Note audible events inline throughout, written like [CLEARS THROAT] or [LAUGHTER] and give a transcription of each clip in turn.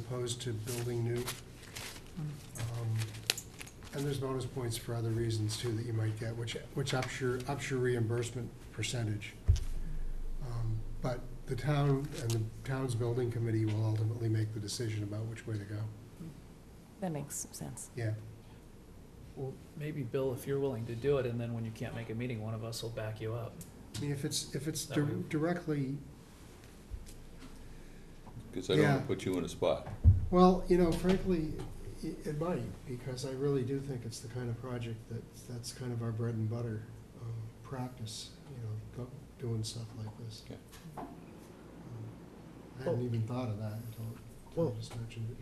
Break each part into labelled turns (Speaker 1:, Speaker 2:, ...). Speaker 1: opposed to building new. Um, And there's bonus points for other reasons too that you might get, which, which ups your, ups your reimbursement percentage. Um, But the town and the town's building committee will ultimately make the decision about which way to go.
Speaker 2: That makes sense.
Speaker 1: Yeah,
Speaker 3: Well, maybe, Bill, if you're willing to do it, and then when you can't make a meeting, one of us will back you up.
Speaker 1: I mean, if it's, if it's
Speaker 3: That way-
Speaker 1: dir- directly,
Speaker 4: Because I don't want
Speaker 1: Yeah.
Speaker 4: to put you in a spot.
Speaker 1: well, you know, frankly, i- it might, because I really do think it's the kind of project that, that's kind of our bread and butter um, practice, you know, go, doing stuff like this.
Speaker 4: Okay.
Speaker 1: Um, I hadn't even thought of that until- until
Speaker 5: Well-
Speaker 1: you just mentioned it.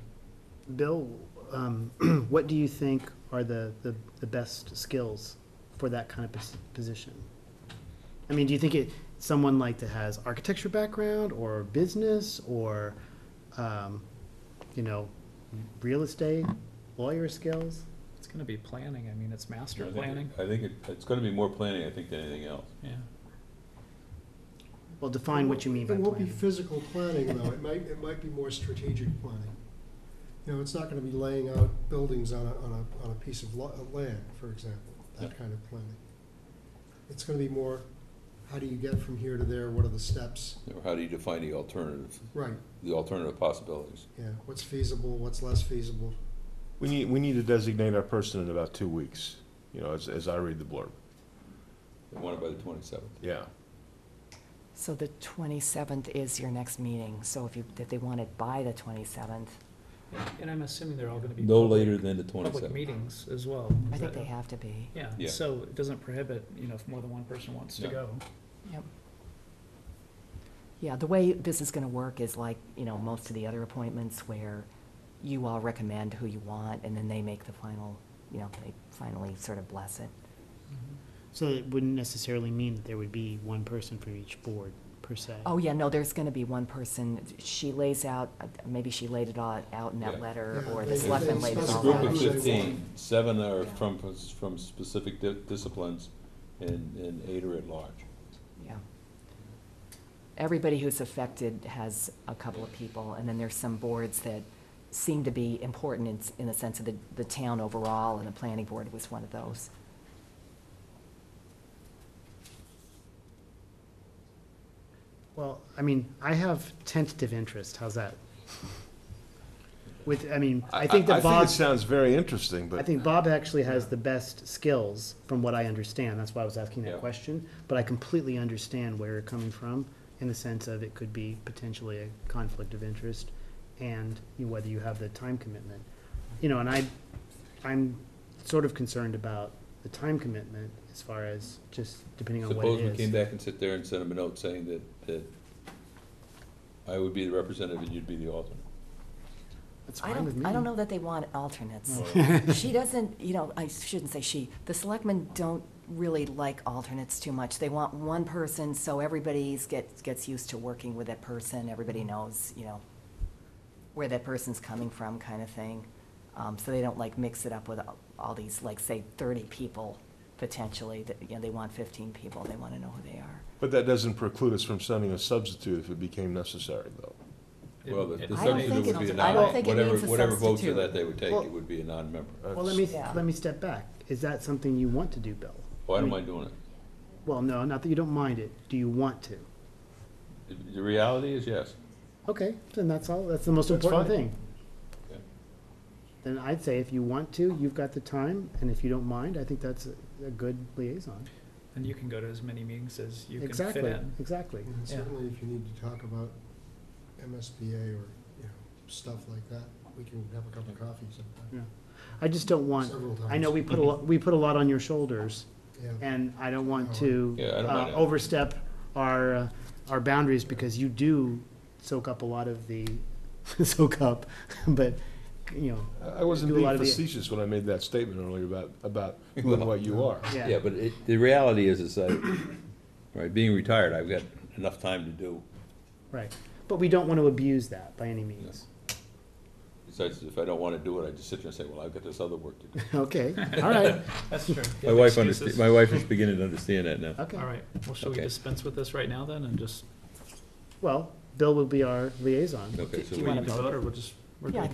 Speaker 5: Bill, um, [CLEARS THROAT] what do you think are the, the, the best skills for that kind of pos- position? I mean, do you think it, someone like that has architecture background or business or, um, you know, real estate, lawyer skills?
Speaker 3: It's gonna be planning, I mean, it's master
Speaker 4: I think it-
Speaker 3: planning,
Speaker 4: I think it- it's gonna be more planning, I think, than anything else.
Speaker 3: yeah.
Speaker 5: Well, define what you mean by
Speaker 1: It won't be
Speaker 5: planning.
Speaker 1: physical planning, though, it might, it might be more strategic planning. You know, it's not gonna be laying out buildings on a, on a, on a piece of lo- of land, for example, that
Speaker 4: Yeah.
Speaker 1: kind of planning. It's gonna be more, how do you get from here to there, what are the steps,
Speaker 4: Or how do you define the alternative,
Speaker 1: right,
Speaker 4: the alternative possibilities?
Speaker 1: yeah, what's feasible, what's less feasible,
Speaker 6: We need, we need to designate our person in about two weeks, you know, as, as I read the blurb.
Speaker 4: I want it by the twenty-seventh.
Speaker 6: Yeah.
Speaker 2: So the 27th is your next meeting, so if you, if they want it by the 27th,
Speaker 3: And I'm assuming they're all gonna be.
Speaker 4: No
Speaker 3: public-
Speaker 4: later than the
Speaker 3: Public
Speaker 4: twenty-seventh.
Speaker 3: meetings as well.
Speaker 2: I think
Speaker 3: But-
Speaker 2: they have to be.
Speaker 3: Yeah,
Speaker 4: Yeah.
Speaker 3: so it doesn't prohibit, you know, if more than one person wants to
Speaker 4: Yeah.
Speaker 3: go.
Speaker 2: Yeah, the way this is gonna work is like, you know, most of the other appointments where you all recommend who you want, and then they make the final, you know, they finally sort of bless it.
Speaker 5: So it wouldn't necessarily mean that there would be one person for each board, per se.
Speaker 2: Oh, yeah, no, there's gonna be one person, she lays out, maybe she laid it all out in that
Speaker 4: Yeah.
Speaker 2: letter,
Speaker 1: Yeah,
Speaker 2: or
Speaker 1: they-
Speaker 2: the
Speaker 1: they
Speaker 2: selectmen laid it
Speaker 4: It's a
Speaker 1: specify
Speaker 2: all
Speaker 4: group
Speaker 2: out.
Speaker 4: of
Speaker 1: who they
Speaker 4: fifteen,
Speaker 1: want.
Speaker 4: seven are from, from specific di- disciplines, and, and eight are at large.
Speaker 2: Yeah. Everybody who's affected has a couple of people, and then there's some boards that seem to be important in, s- in the sense of the, the town overall, and the planning board was one of those.
Speaker 5: Well, I mean, I have tentative interest, how's that? With, I mean, I think that
Speaker 6: I think
Speaker 5: Bob.
Speaker 6: it sounds very interesting, but.
Speaker 5: I think Bob actually has the best skills, from what I understand, that's why I was asking
Speaker 4: Yeah.
Speaker 5: that question, but I completely understand where you're coming from, in the sense of it could be potentially a conflict of interest, and you- whether you have the time commitment. You know, and I, I'm sort of concerned about the time commitment, as far as just depending on what
Speaker 4: Suppose we
Speaker 5: it
Speaker 4: came
Speaker 5: is.
Speaker 4: back and sit there and sent them a note saying that, that I would be the representative and you'd be the alternate.
Speaker 5: That's
Speaker 2: I
Speaker 5: fine with
Speaker 2: don't,
Speaker 5: me.
Speaker 2: I [LAUGHS] don't know that they want alternates. [LAUGHS] She doesn't, you know, I shouldn't say she, the selectmen don't really like alternates too much. They want one person, so everybody's gets, gets used to working with that person, everybody knows, you know, where that person's coming from kind of thing. Um, so they don't like mix it up with all- all these, like, say, thirty people potentially, that, you know, they want fifteen people, they wanna know who they are.
Speaker 6: But that doesn't preclude us from sending a substitute if it became necessary, though.
Speaker 4: Well, the, the
Speaker 2: I don't
Speaker 4: substitute
Speaker 2: think
Speaker 4: would
Speaker 2: it-
Speaker 4: be a
Speaker 2: I don't
Speaker 4: non,
Speaker 2: think it
Speaker 4: whatever,
Speaker 2: means a
Speaker 4: whatever votes
Speaker 2: substitute.
Speaker 4: of that they would take,
Speaker 5: Well-
Speaker 4: it would be a non-member.
Speaker 5: Well, let me,
Speaker 2: Yeah.
Speaker 5: let me step back, is that something you want to do, Bill?
Speaker 4: Why am
Speaker 5: mean-
Speaker 4: I doing it?
Speaker 5: Well, no, not that you don't mind it, do you want to?
Speaker 4: The- The reality is yes.
Speaker 5: Okay, then that's all, that's the most
Speaker 6: That's
Speaker 5: important
Speaker 6: fine.
Speaker 5: thing.
Speaker 4: Okay.
Speaker 5: Then I'd say if you want to, you've got the time, and if you don't mind, I think that's a, a good liaison.
Speaker 3: And you can go to as many meetings as you can fit
Speaker 5: Exactly,
Speaker 3: in.
Speaker 5: exactly.
Speaker 1: And certainly if you need to talk about MSBA or, you know, stuff like that, we can have a cup of coffee sometime,
Speaker 5: I just don't want,
Speaker 1: several times.
Speaker 5: I know we put a lot, we put a lot on your shoulders,
Speaker 1: Yeah,
Speaker 5: and I don't want to
Speaker 4: Yeah, I don't
Speaker 5: uh,
Speaker 4: mind that.
Speaker 5: overstep our, uh, our boundaries, because you do soak up a lot of the, [LAUGHS] soak up, [LAUGHS] but, you know,
Speaker 6: I- I wasn't
Speaker 5: Do a lot of
Speaker 6: being
Speaker 5: the-
Speaker 6: facetious when I made that statement earlier about, about
Speaker 5: [LAUGHS]
Speaker 6: who and what you are.
Speaker 4: Yeah,
Speaker 5: yeah,
Speaker 4: but it, the reality is, is that, right, being retired, I've got enough time to do,
Speaker 5: right. But we don't want to abuse that by any means.
Speaker 4: besides, if I don't wanna do it, I just sit there and say, well, I've got this other work to do.
Speaker 5: [LAUGHS] Okay, all right,
Speaker 3: That's true.
Speaker 4: My wife understa- my wife is beginning to understand that now.
Speaker 5: okay.
Speaker 3: All right, well, shall we
Speaker 4: Okay.
Speaker 3: dispense with this right now then, and just,
Speaker 5: Well, Bill will be our liaison.
Speaker 4: Okay, so
Speaker 3: do you
Speaker 4: we,
Speaker 3: want to vote, or we'll just we're
Speaker 7: Yeah, I
Speaker 3: good.